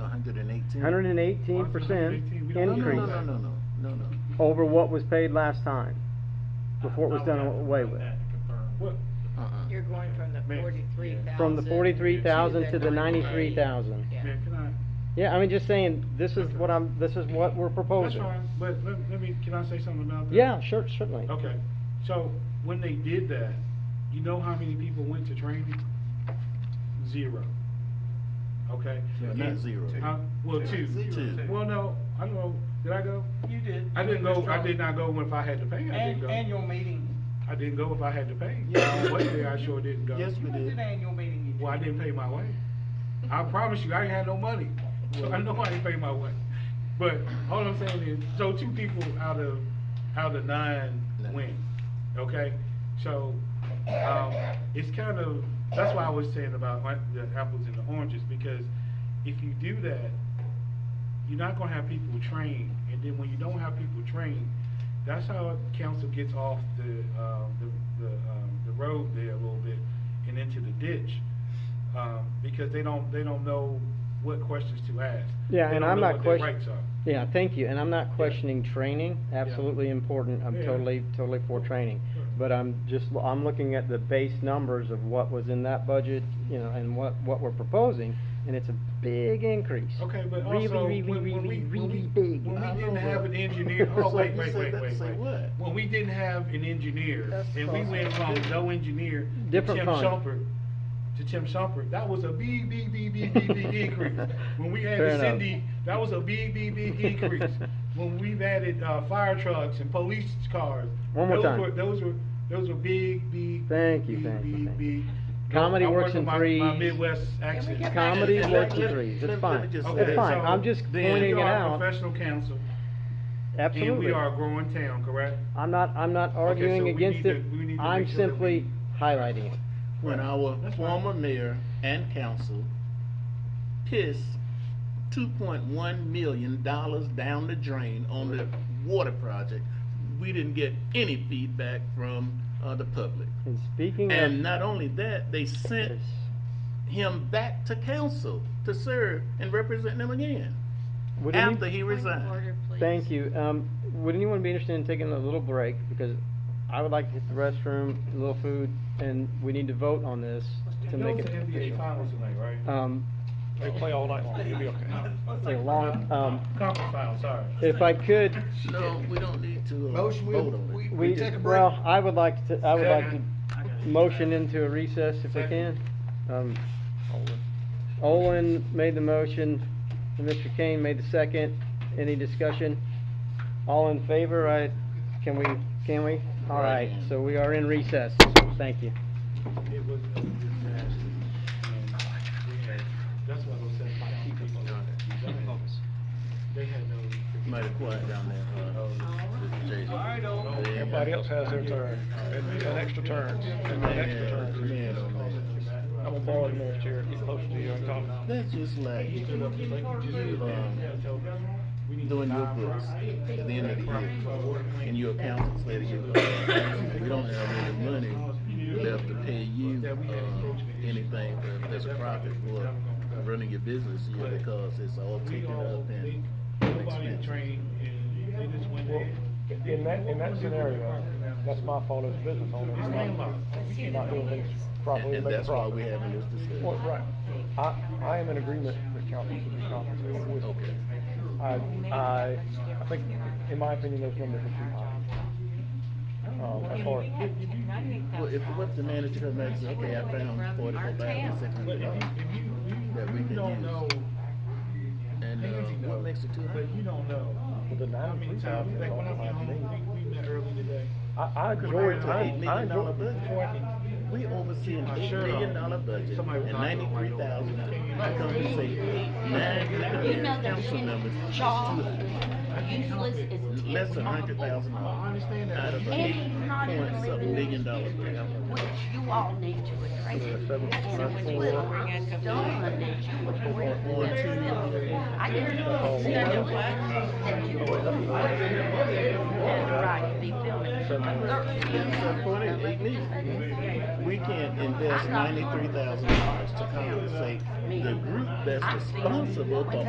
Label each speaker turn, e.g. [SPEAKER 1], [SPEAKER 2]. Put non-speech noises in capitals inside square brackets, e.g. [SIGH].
[SPEAKER 1] hundred and eighteen?
[SPEAKER 2] Hundred and eighteen percent
[SPEAKER 3] 118, we don't
[SPEAKER 1] No, no,
[SPEAKER 2] increase
[SPEAKER 1] no, no, no, no, no, no.
[SPEAKER 2] over what was paid last time, before it was done away with.
[SPEAKER 3] What,
[SPEAKER 1] Uh-uh.
[SPEAKER 4] You're going from the
[SPEAKER 3] Man.
[SPEAKER 4] forty-three thousand.
[SPEAKER 2] From the forty-three thousand to the ninety-three thousand.
[SPEAKER 4] Yeah.
[SPEAKER 3] man, can I,
[SPEAKER 2] Yeah, I mean, just saying, this is what I'm, this is what we're
[SPEAKER 3] that's
[SPEAKER 2] proposing.
[SPEAKER 3] fine, but let, let me, can I say something about that?
[SPEAKER 2] Yeah, sure, certainly.
[SPEAKER 3] Okay, so when they did that, you know how many people went to training? Zero. Okay?
[SPEAKER 1] Yeah, not
[SPEAKER 3] And-
[SPEAKER 1] zero.
[SPEAKER 3] Huh? Well, two.
[SPEAKER 1] Two. Two.
[SPEAKER 3] Well, no, I don't know, did I go?
[SPEAKER 5] You did.
[SPEAKER 3] I didn't
[SPEAKER 5] You
[SPEAKER 3] go, I
[SPEAKER 5] just
[SPEAKER 3] did not go if I had to pay, I didn't
[SPEAKER 5] An-
[SPEAKER 3] go.
[SPEAKER 5] Annual meeting.
[SPEAKER 3] I didn't go if I had to pay.
[SPEAKER 5] Yeah.
[SPEAKER 3] One day I sure didn't go.
[SPEAKER 1] Yes,
[SPEAKER 5] You
[SPEAKER 1] we
[SPEAKER 5] went to
[SPEAKER 1] did.
[SPEAKER 5] the annual meeting. you
[SPEAKER 3] Well, I didn't pay my way. I promise you, I ain't had no money, [LAUGHS] so I know I didn't pay my way. But all I'm saying is, so two people out of, out of nine win, okay? So, um, it's kind of, that's why I was saying about like the apples and the oranges, because if you do that, you're not gonna have people trained, and then when you don't have people trained, that's how council gets off the, uh, the, the, um, the road there a little bit and into the ditch. Um, because they don't, they don't know what questions to ask.
[SPEAKER 2] Yeah,
[SPEAKER 3] They
[SPEAKER 2] and
[SPEAKER 3] don't
[SPEAKER 2] I'm
[SPEAKER 3] know
[SPEAKER 2] not
[SPEAKER 3] what their
[SPEAKER 2] question-
[SPEAKER 3] rights are.
[SPEAKER 2] Yeah, thank you, and I'm not questioning training, absolutely important, I'm
[SPEAKER 3] Yeah.
[SPEAKER 2] totally, totally for training.
[SPEAKER 3] Sure.
[SPEAKER 2] But I'm just, I'm looking at the base numbers of what was in that budget, you know, and what, what we're proposing, and it's a big increase.
[SPEAKER 3] Okay, but
[SPEAKER 2] Really,
[SPEAKER 3] also,
[SPEAKER 2] really,
[SPEAKER 3] when, when we,
[SPEAKER 2] really,
[SPEAKER 3] when we,
[SPEAKER 2] really big.
[SPEAKER 3] when
[SPEAKER 1] I
[SPEAKER 3] we didn't
[SPEAKER 1] know
[SPEAKER 3] have
[SPEAKER 1] that.
[SPEAKER 2] [LAUGHS]
[SPEAKER 3] an engineer, oh,
[SPEAKER 1] So
[SPEAKER 3] wait,
[SPEAKER 1] you
[SPEAKER 3] wait,
[SPEAKER 1] said
[SPEAKER 3] wait,
[SPEAKER 1] that to
[SPEAKER 3] wait,
[SPEAKER 1] say
[SPEAKER 3] wait.
[SPEAKER 1] what?
[SPEAKER 3] When we didn't have an engineer,
[SPEAKER 1] That's
[SPEAKER 3] and we
[SPEAKER 1] fine.
[SPEAKER 3] went from no engineer to
[SPEAKER 2] Different
[SPEAKER 3] Tim
[SPEAKER 2] fund.
[SPEAKER 3] Shumpert, to Tim Shumpert, that was a big, big, big, big,
[SPEAKER 2] [LAUGHS]
[SPEAKER 3] big, big increase. When we
[SPEAKER 2] Fair
[SPEAKER 3] added
[SPEAKER 2] enough.
[SPEAKER 3] Cindy, that was a big, big, big increase. When we've added, uh, fire trucks and police cars.
[SPEAKER 2] One more
[SPEAKER 3] those
[SPEAKER 2] time.
[SPEAKER 3] were- Those were, those were big, big.
[SPEAKER 2] Thank you,
[SPEAKER 3] big,
[SPEAKER 2] thank you,
[SPEAKER 3] big,
[SPEAKER 2] thank
[SPEAKER 3] big-
[SPEAKER 2] Comedy
[SPEAKER 3] I'm
[SPEAKER 2] works
[SPEAKER 3] working
[SPEAKER 2] in
[SPEAKER 3] my- My
[SPEAKER 2] threes.
[SPEAKER 3] Midwest
[SPEAKER 4] we
[SPEAKER 3] accent.
[SPEAKER 4] get back
[SPEAKER 2] Comedy
[SPEAKER 4] Let-
[SPEAKER 2] works in
[SPEAKER 4] let-
[SPEAKER 1] let-
[SPEAKER 2] threes, it's
[SPEAKER 1] let me
[SPEAKER 2] fine,
[SPEAKER 1] just say
[SPEAKER 2] it's
[SPEAKER 3] Okay,
[SPEAKER 1] that.
[SPEAKER 2] fine,
[SPEAKER 3] so
[SPEAKER 2] I'm just
[SPEAKER 3] then
[SPEAKER 2] pointing it
[SPEAKER 3] We are a
[SPEAKER 2] out,
[SPEAKER 3] professional council. And
[SPEAKER 2] absolutely.
[SPEAKER 3] we are a growing town, correct?
[SPEAKER 2] I'm not, I'm not arguing
[SPEAKER 3] we
[SPEAKER 2] against
[SPEAKER 3] need
[SPEAKER 2] it,
[SPEAKER 3] to- we need to
[SPEAKER 2] I'm
[SPEAKER 3] make sure that
[SPEAKER 2] simply
[SPEAKER 3] we-
[SPEAKER 2] highlighting it.
[SPEAKER 1] When our former mayor and council pissed two point one million dollars down the drain on the water project, we didn't get any feedback from, uh, the public.
[SPEAKER 2] And speaking of.
[SPEAKER 1] And not only that, they sent him back to council to serve and represent them again,
[SPEAKER 2] Would any-
[SPEAKER 1] after he uh,
[SPEAKER 4] Point of
[SPEAKER 1] resigned.
[SPEAKER 4] order, please.
[SPEAKER 2] Thank you. Um, would anyone be interested in taking a little break? Because I would like to hit the restroom, a little food, and we need to vote on this to make it
[SPEAKER 3] Those are NBA
[SPEAKER 2] official.
[SPEAKER 3] finals tonight, right?
[SPEAKER 2] Um,
[SPEAKER 3] They play all night long, you'll be okay.
[SPEAKER 2] it's a long, um,
[SPEAKER 3] Conference final, sorry.
[SPEAKER 2] if I could,
[SPEAKER 1] No, we don't need to, uh,
[SPEAKER 6] Motion, we-
[SPEAKER 1] vote on it.
[SPEAKER 6] we-
[SPEAKER 2] we,
[SPEAKER 6] take a break?
[SPEAKER 2] well, I would like to, I would like to
[SPEAKER 5] I got it.
[SPEAKER 2] motion into a recess if we can. Um,
[SPEAKER 3] Second.
[SPEAKER 2] Olin made the motion, and Mr. Kane made the second. Any discussion? All in favor, I, can we, can we? All right, so we are in recess. Thank you.
[SPEAKER 3] It was, it was just nasty. And we had- That's why those seven councils. They had no.
[SPEAKER 1] Might have quiet down there, uh, Mr. Jason.
[SPEAKER 7] Everybody else has their turn, and an extra turn, and an extra turn.
[SPEAKER 1] Man, oh, man.
[SPEAKER 7] I'm gonna borrow the mayor's chair, he's close to you, and talk.
[SPEAKER 1] That's just like
[SPEAKER 3] He stood up just like you just did.
[SPEAKER 1] Um,
[SPEAKER 3] Yeah, tell them, we need
[SPEAKER 1] doing your
[SPEAKER 3] nine
[SPEAKER 1] books
[SPEAKER 3] properties.
[SPEAKER 1] at the end of the year, and your accountants let you, uh, you don't have any money left to pay you, uh, anything for- as a profit for running your business year because it's all
[SPEAKER 3] We
[SPEAKER 1] taken
[SPEAKER 3] all,
[SPEAKER 1] up
[SPEAKER 3] they,
[SPEAKER 1] and
[SPEAKER 3] nobody
[SPEAKER 1] expensive.
[SPEAKER 3] trained and they just went there.
[SPEAKER 7] In that, in that scenario, that's my fault as a business owner,
[SPEAKER 3] It's
[SPEAKER 7] not,
[SPEAKER 3] landlocked.
[SPEAKER 7] not doing things
[SPEAKER 1] And
[SPEAKER 7] properly,
[SPEAKER 1] and
[SPEAKER 7] making
[SPEAKER 1] that's why we're
[SPEAKER 7] profit.
[SPEAKER 1] having this
[SPEAKER 7] Well,
[SPEAKER 1] discussion.
[SPEAKER 7] right, I, I am in agreement with council to be compensated with.
[SPEAKER 1] Okay.
[SPEAKER 7] I, I, I think, in my opinion, those numbers are too high. Um, as far as,
[SPEAKER 1] Well, if, what if the manager comes back and says, okay, I found forty-four thousand six
[SPEAKER 3] But
[SPEAKER 1] hundred
[SPEAKER 3] if you,
[SPEAKER 1] dollars,
[SPEAKER 3] if you,
[SPEAKER 1] That we
[SPEAKER 3] you,
[SPEAKER 1] can
[SPEAKER 3] you don't
[SPEAKER 1] use.
[SPEAKER 3] know,
[SPEAKER 1] and,
[SPEAKER 3] and
[SPEAKER 1] uh,
[SPEAKER 3] you know,
[SPEAKER 1] what makes it two
[SPEAKER 3] but you
[SPEAKER 1] hundred?
[SPEAKER 3] don't know.
[SPEAKER 7] With the
[SPEAKER 3] How many
[SPEAKER 7] 93,000
[SPEAKER 3] times, like when I went
[SPEAKER 7] dollar
[SPEAKER 3] home, we, we met early today.
[SPEAKER 7] I, I enjoy,
[SPEAKER 1] Compared to
[SPEAKER 7] I,
[SPEAKER 1] eight million
[SPEAKER 7] I
[SPEAKER 1] dollar
[SPEAKER 7] enjoy,
[SPEAKER 1] budget. We oversee an
[SPEAKER 3] My
[SPEAKER 1] eight
[SPEAKER 3] shirt
[SPEAKER 1] million
[SPEAKER 3] off.
[SPEAKER 1] dollar budget and
[SPEAKER 3] Somebody was knocking on my
[SPEAKER 1] ninety-three
[SPEAKER 3] door.
[SPEAKER 1] thousand
[SPEAKER 3] Right.
[SPEAKER 1] to compensate nine council members. It's too high.
[SPEAKER 8] useless as it
[SPEAKER 1] Less
[SPEAKER 8] is
[SPEAKER 1] than
[SPEAKER 8] on
[SPEAKER 1] hundred
[SPEAKER 8] the
[SPEAKER 1] thousand
[SPEAKER 3] I
[SPEAKER 1] dollars
[SPEAKER 3] understand that.
[SPEAKER 1] out of an
[SPEAKER 8] And he's not
[SPEAKER 1] eight
[SPEAKER 8] even
[SPEAKER 1] point something
[SPEAKER 8] living
[SPEAKER 1] million
[SPEAKER 8] in
[SPEAKER 1] dollar
[SPEAKER 8] the future,
[SPEAKER 1] budget.
[SPEAKER 8] which you all need to address. And when Will was done, that you would bring it
[SPEAKER 1] One,
[SPEAKER 8] to
[SPEAKER 1] two. Oh,
[SPEAKER 8] them. I guarantee you that you would bring that right to be
[SPEAKER 1] That's
[SPEAKER 8] filming.
[SPEAKER 1] what it is, me. We can't invest ninety-three thousand dollars to compensate the group that's responsible for